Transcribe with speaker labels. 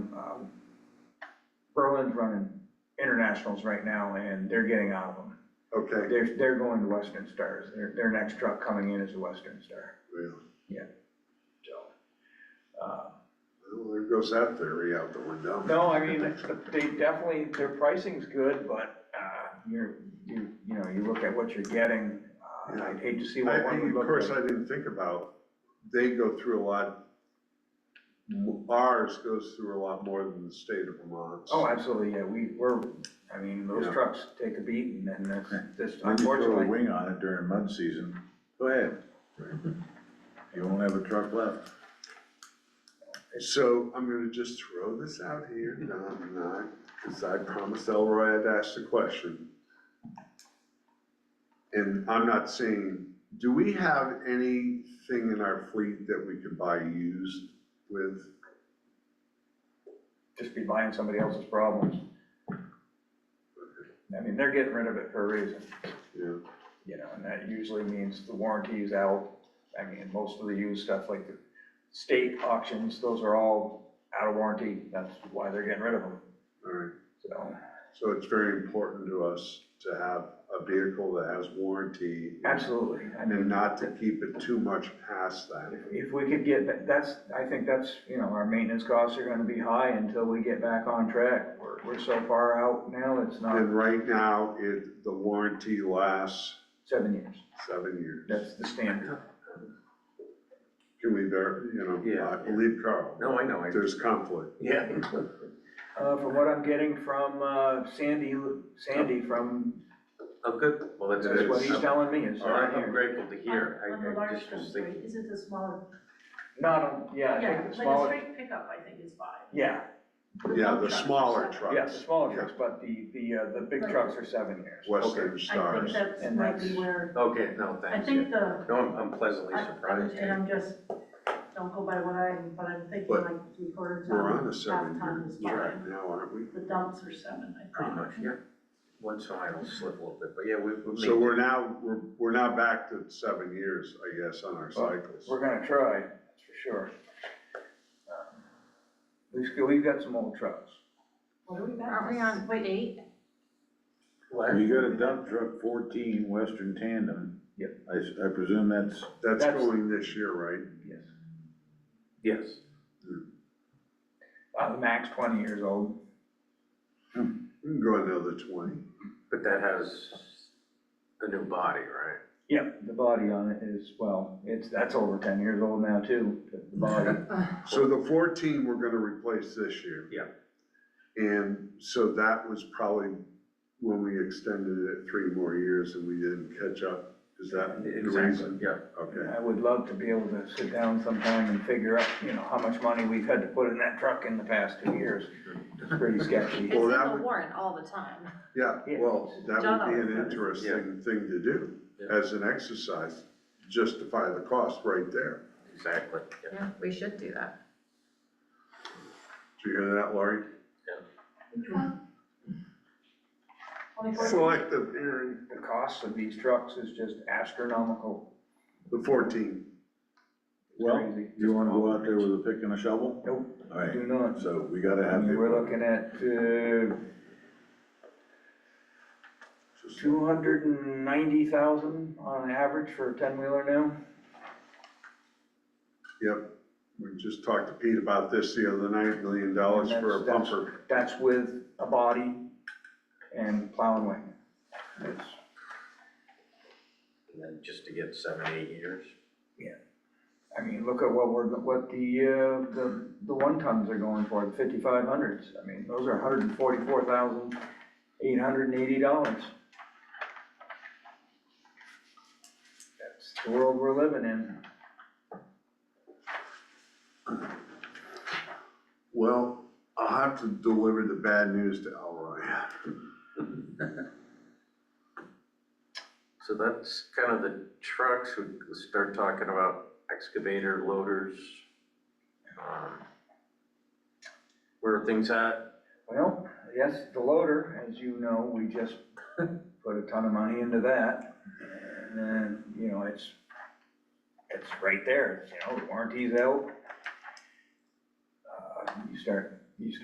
Speaker 1: um, Berlin's running internationals right now and they're getting out of them.
Speaker 2: Okay,
Speaker 1: They're, they're going to Western Stars. Their, their next truck coming in is a Western Star,
Speaker 2: really?
Speaker 1: so. uh,
Speaker 2: Well, there goes that theory out the window.
Speaker 1: No, I mean, it's- they definitely, their pricing's good, but uh, you're, you, you know, you look at what you're getting. uh, I'd hate to see
Speaker 2: I,
Speaker 1: what one
Speaker 2: I-
Speaker 1: would
Speaker 2: of
Speaker 1: look
Speaker 2: course,
Speaker 1: like.
Speaker 2: I didn't think about, they go through a lot, ours goes through a lot more than the state of Vermont.
Speaker 1: Oh, absolutely, yeah, we, we're, I mean,
Speaker 2: Yeah.
Speaker 1: those trucks take a beating and that's,
Speaker 3: Okay.
Speaker 1: that's
Speaker 3: I just throw a
Speaker 1: unfortunately.
Speaker 3: wing on it during mud season, go ahead. You won't have a truck left.
Speaker 2: So I'm gonna just throw this out here, no, I'm not, because I promised Elroy I'd ask the question. And I'm not saying, do we have anything in our fleet that we could buy used with?
Speaker 1: Just be buying somebody else's problems. I mean, they're getting rid of it for a reason,
Speaker 2: Yeah,
Speaker 1: you know, and that usually means the warranty is out. I mean, most of the used stuff like the state auctions, those are all out of warranty, that's why they're getting rid of them,
Speaker 2: all right,
Speaker 1: so.
Speaker 2: so it's very important to us to have a vehicle that has warranty.
Speaker 1: Absolutely, I
Speaker 2: And
Speaker 1: mean,
Speaker 2: not to keep it too much past that.
Speaker 1: if- if we could get, that- that's, I think that's, you know, our maintenance costs are gonna be high until we get back on track. We're, we're so far out now, it's not
Speaker 2: And right now, it, the warranty lasts
Speaker 1: seven years,
Speaker 2: seven years.
Speaker 1: that's the standard.
Speaker 2: Can we ver, you know,
Speaker 4: Yeah.
Speaker 2: I believe Carl,
Speaker 4: No, I know, I,
Speaker 2: there's conflict.
Speaker 4: yeah.
Speaker 1: Uh, from what I'm getting from, uh, Sandy, Sandy from,
Speaker 4: I'm Oh, good, well, that's
Speaker 1: that's
Speaker 4: good.
Speaker 1: what he's
Speaker 4: I'm-
Speaker 1: telling me is
Speaker 2: All right,
Speaker 1: right
Speaker 4: I'm
Speaker 1: here.
Speaker 4: grateful to hear,
Speaker 5: On- On the
Speaker 4: I, I
Speaker 5: large
Speaker 4: just was
Speaker 5: trucks,
Speaker 4: thinking,
Speaker 5: right, is it the smaller?
Speaker 1: Not on, yeah, I think
Speaker 5: Yeah,
Speaker 1: the
Speaker 5: like a
Speaker 1: smaller,
Speaker 5: straight pickup, I think is five.
Speaker 1: yeah,
Speaker 2: Yeah, the smaller
Speaker 1: yeah, the
Speaker 2: trucks,
Speaker 1: smaller trucks, but the, the, uh, the big trucks are seven years.
Speaker 2: Western
Speaker 5: I think
Speaker 2: Stars.
Speaker 5: that's
Speaker 1: And
Speaker 5: might be
Speaker 1: that's-
Speaker 5: where,
Speaker 4: okay, no,
Speaker 5: I
Speaker 4: thanks, yeah.
Speaker 5: think the,
Speaker 4: No, I'm I'm pleasantly
Speaker 5: I-
Speaker 4: surprised.
Speaker 5: and I'm just, don't go by what I, but I'm thinking
Speaker 2: But
Speaker 5: like three quarter
Speaker 2: We're on
Speaker 5: ton,
Speaker 2: a
Speaker 5: half ton
Speaker 2: seven-year
Speaker 5: is
Speaker 2: track
Speaker 5: fine.
Speaker 2: now, aren't we?
Speaker 5: The dumps are seven, I think.
Speaker 4: Pretty much, yeah. Once in a while it'll slip a little bit, but yeah, we, we made.
Speaker 2: So we're now, we're, we're now back to seven years, I guess, on our cycles.
Speaker 1: We're gonna try, that's for sure. Um, We've, got- we've got some old trucks.
Speaker 5: What are we back to?
Speaker 6: Aren't we on, wait, eight?
Speaker 4: What?
Speaker 3: You got a dump truck fourteen Western tandem.
Speaker 1: Yep.
Speaker 3: I, s- I presume that's,
Speaker 2: That's
Speaker 1: That's-
Speaker 2: going this year, right?
Speaker 1: Yes.
Speaker 4: Yes,
Speaker 1: Uh, max twenty years old.
Speaker 2: We can go another twenty.
Speaker 4: but that has a new body, right?
Speaker 1: Yep. The body on it is, well, it's, that's over ten years old now too, the body.
Speaker 2: So the fourteen, we're gonna replace this year.
Speaker 4: Yeah.
Speaker 2: And so that was probably when we extended it three more years and we didn't catch up. Is that the
Speaker 4: Exactly,
Speaker 2: reason?
Speaker 4: yeah.
Speaker 2: Okay.
Speaker 1: I would love to be able to sit down sometime and figure out, you know, how much money we've had to put in that truck in the past two years. It's pretty sketchy.
Speaker 6: It's in
Speaker 2: that
Speaker 6: the
Speaker 2: would-
Speaker 6: warrant all the time.
Speaker 2: Yeah,
Speaker 1: Yeah.
Speaker 2: well, that
Speaker 6: John
Speaker 2: would be an
Speaker 6: always does.
Speaker 2: interesting thing to do
Speaker 4: Yeah.
Speaker 2: as an exercise, justify the cost right there.
Speaker 4: Exactly, yeah.
Speaker 6: Yeah, we should do that.
Speaker 2: Did you hear that, Laurie?
Speaker 5: Twenty-four?
Speaker 2: Selective hearing,
Speaker 1: The cost of these trucks is just astronomical.
Speaker 2: the fourteen.
Speaker 3: well,
Speaker 1: Crazy.
Speaker 3: you wanna go out there with a pick and a shovel?
Speaker 1: Nope,
Speaker 3: All right,
Speaker 1: do not.
Speaker 3: so we gotta
Speaker 1: I
Speaker 3: have.
Speaker 1: mean, we're
Speaker 3: people-
Speaker 1: looking at, uh, two hundred and ninety thousand on average for a ten-wheeler now.
Speaker 2: Yep, we just talked to Pete about this the other night, million dollars for a
Speaker 1: And that's-
Speaker 2: bumper.
Speaker 1: That's with a body and plow and wing. It's-
Speaker 4: And then just to get seven, eight years.
Speaker 1: I mean, look at what we're, what the, uh, the, the one tons are going for, the fifty-five hundreds. I mean, those are hundred and forty-four thousand, eight hundred and eighty dollars. That's the world we're living in.
Speaker 2: Well, I'll have to deliver the bad news to Elroy.
Speaker 4: So that's kind of the trucks, we could start talking about excavator, loaders. um, Where are things at?
Speaker 1: Well, yes, the loader, as you know, we just put a ton of money into that. And then, you know, it's, it's right there, you know, the warranty's out. Uh, You start